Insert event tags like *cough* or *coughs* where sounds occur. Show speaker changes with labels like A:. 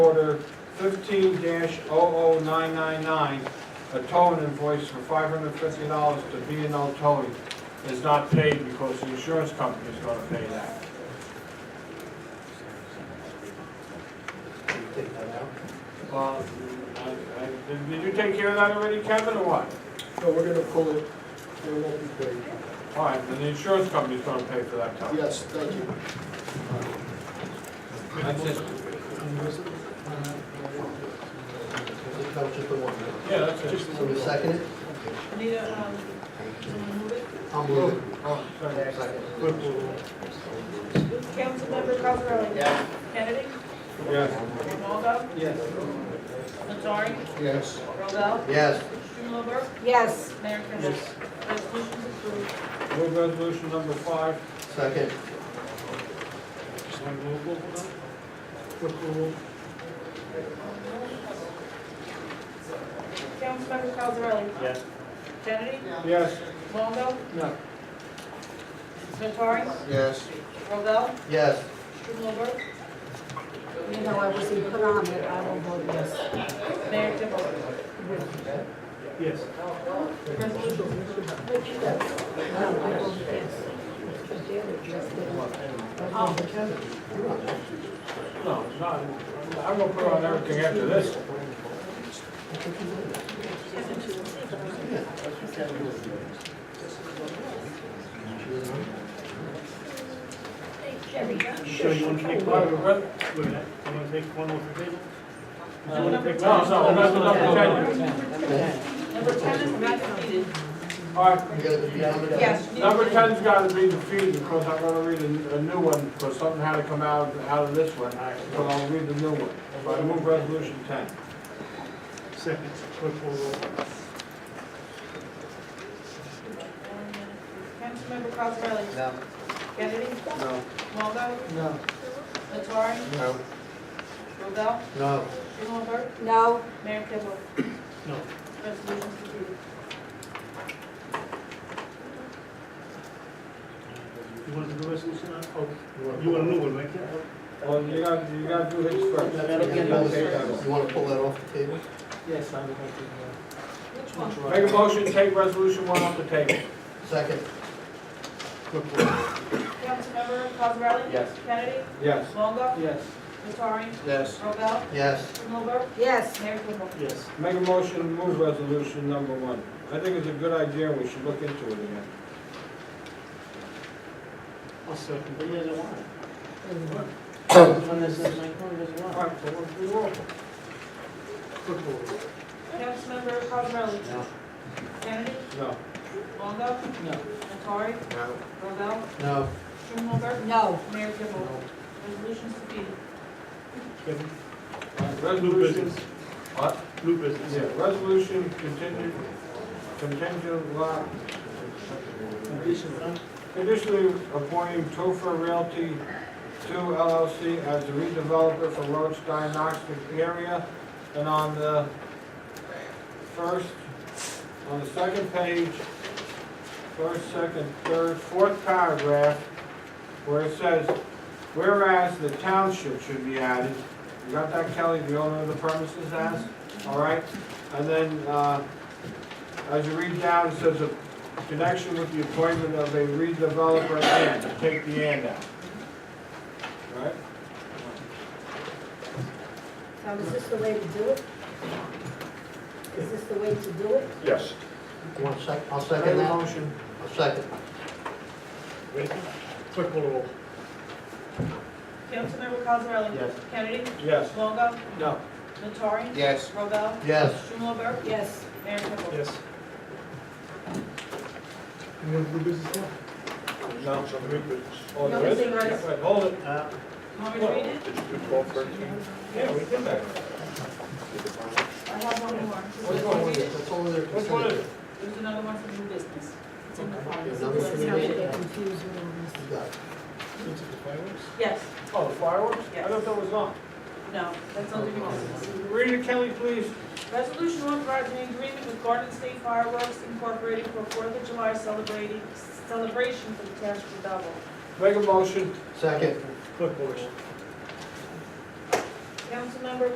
A: Order fifteen oh 999 a towing invoice for five hundred fifty dollars to B and L Towing is not paid because the insurance company is gonna pay that.
B: Can you take that out?
A: Well, I- I- did- Did you take care of that already, Kevin, or what?
B: No, we're gonna pull it, it won't be paid.
A: All right, then the insurance company is gonna pay for that tow.
B: Yes, thank you.
A: That's it.
B: That was just the one.
A: Yeah, that's it.
B: So we second it?
C: Anita, um, someone move it.
B: I'll move it.
A: Oh, sorry.
B: Second.
C: Councilmember Cosarelli?
B: Yes.
C: Kennedy?
A: Yes.
C: Waldo?
B: Yes.
C: Nattari?
B: Yes.
C: Robel?
B: Yes.
C: Strumelberg?
D: Yes,
C: Mayor Kimball? Resolution's approved.
A: Move resolution number five.
B: Second.
C: Councilmember Cosarelli?
A: Yes.
C: Kennedy?
A: Yes.
C: Waldo?
B: No.
C: Nattari?
B: Yes.
C: Robel?
B: Yes.
C: Strumelberg?
D: you know, I was in put on it, I will vote yes.
C: Mayor Kimball?
A: Yes.
C: Resolution.
D: No, I voted yes. Because the other just didn't. Oh,
A: No, not, I'm gonna put on everything after this.
E: So you want to take one, wait
A: Uh,
E: a minute, you want to take one off the table?
A: No, no, no, that's number ten.
C: Number ten is not defeated.
A: All right,
B: You gotta be on the-
C: Yes. you need
A: number
C: to-
A: ten's gotta be defeated, because I'm gonna read a, a new one, because something had to come out, out of this one, so I'll read the new one. But I move resolution ten.
E: Second, clerk call roll.
C: Councilmember Cosarelli?
B: No.
C: Kennedy?
B: No.
C: Waldo?
B: No.
C: Nattari?
B: No.
C: Robel?
B: No.
C: Strumelberg?
D: No,
C: Mayor Kibble?
E: No,
C: Resolution's approved.
E: you want to do the resolution now? Okay, you want a new one, right?
A: Well, you gotta, you gotta do his first.
B: You wanna pull that off the table?
F: Yes, I would like to,
C: Which one?
F: uh,
A: Make a motion, take resolution one off the table.
B: Second.
E: Clerk call roll.
C: Councilmember Cosarelli?
B: Yes.
C: Kennedy?
A: Yes.
C: Longo?
F: yes,
C: Nattari?
B: Yes.
C: Robel?
A: *coughs*
B: Yes.
C: Strumelberg?
D: yes,
C: Mayor Kimball?
E: Yes,
A: Make a motion, to move resolution number one. I think it's a good idea, we should look into it again.
E: I'll second. But you
A: All right, so we'll do roll.
E: Clerk call roll.
C: Councilmember Cosarelli?
B: No.
C: Kennedy?
A: No.
C: Longo?
F: no,
C: Nattari?
B: No.
C: Robel?
B: No.
C: Strumelberg?
D: no,
C: Mayor Kimball? Resolution's defeated.
E: Kevin, new
A: Resolution,
E: business,
A: what?
E: new business.
A: Yeah, resolution contingent, contingent lot,
F: additional,
A: conditionally appointing Topher Realty Two LLC as the redeveloper for Roadstein Knoxville area. And on the first, on the second page, first, second, third, fourth paragraph, where it says, whereas the township should be added, you got that Kelly, the owner of the premises has, all right? And then, uh, as you read down, it says, "A connection with the appointment of a redeveloper and, take the and out. Right?
D: now is this the way to do it? Is this the way to do it?
A: Yes.
B: You want sec, I'll
A: Make a
B: second that.
A: motion.
B: I'll second.
E: Ready? Clerk call roll.
C: Councilmember Cosarelli?
B: Yes.
C: Kennedy?
A: Yes.
C: Longo?
F: no,
C: Nattari?
B: Yes.
C: Robel?
B: Yes.
C: Strumelberg?
D: Yes,
C: Mayor Kimball?
E: Yes. You want to do business now?
A: No. Oh,
C: No,
A: there is?
C: it's
A: Wait,
C: right. Uh,
A: hold it.
C: You Want me to read it?
A: Yeah, we did that.
C: I have one more.
B: What's wrong with it? That's all there.
A: Which one is it?
C: There's another one for new business. It's in the
B: Yeah,
C: file.
B: number
D: this is how
B: three.
D: we get confused with all
B: You got it.
C: Yes,
A: Oh, the fireworks? I thought that was on.
C: no, that's under new business.
A: Read it, Kelly, please.
C: Resolution authorizing agreement with Garden State Fireworks Incorporated for Fourth of July celebrating, celebration for the township of Belleville.
A: Make a motion.
B: Second.
E: Clerk call roll.
C: Councilmember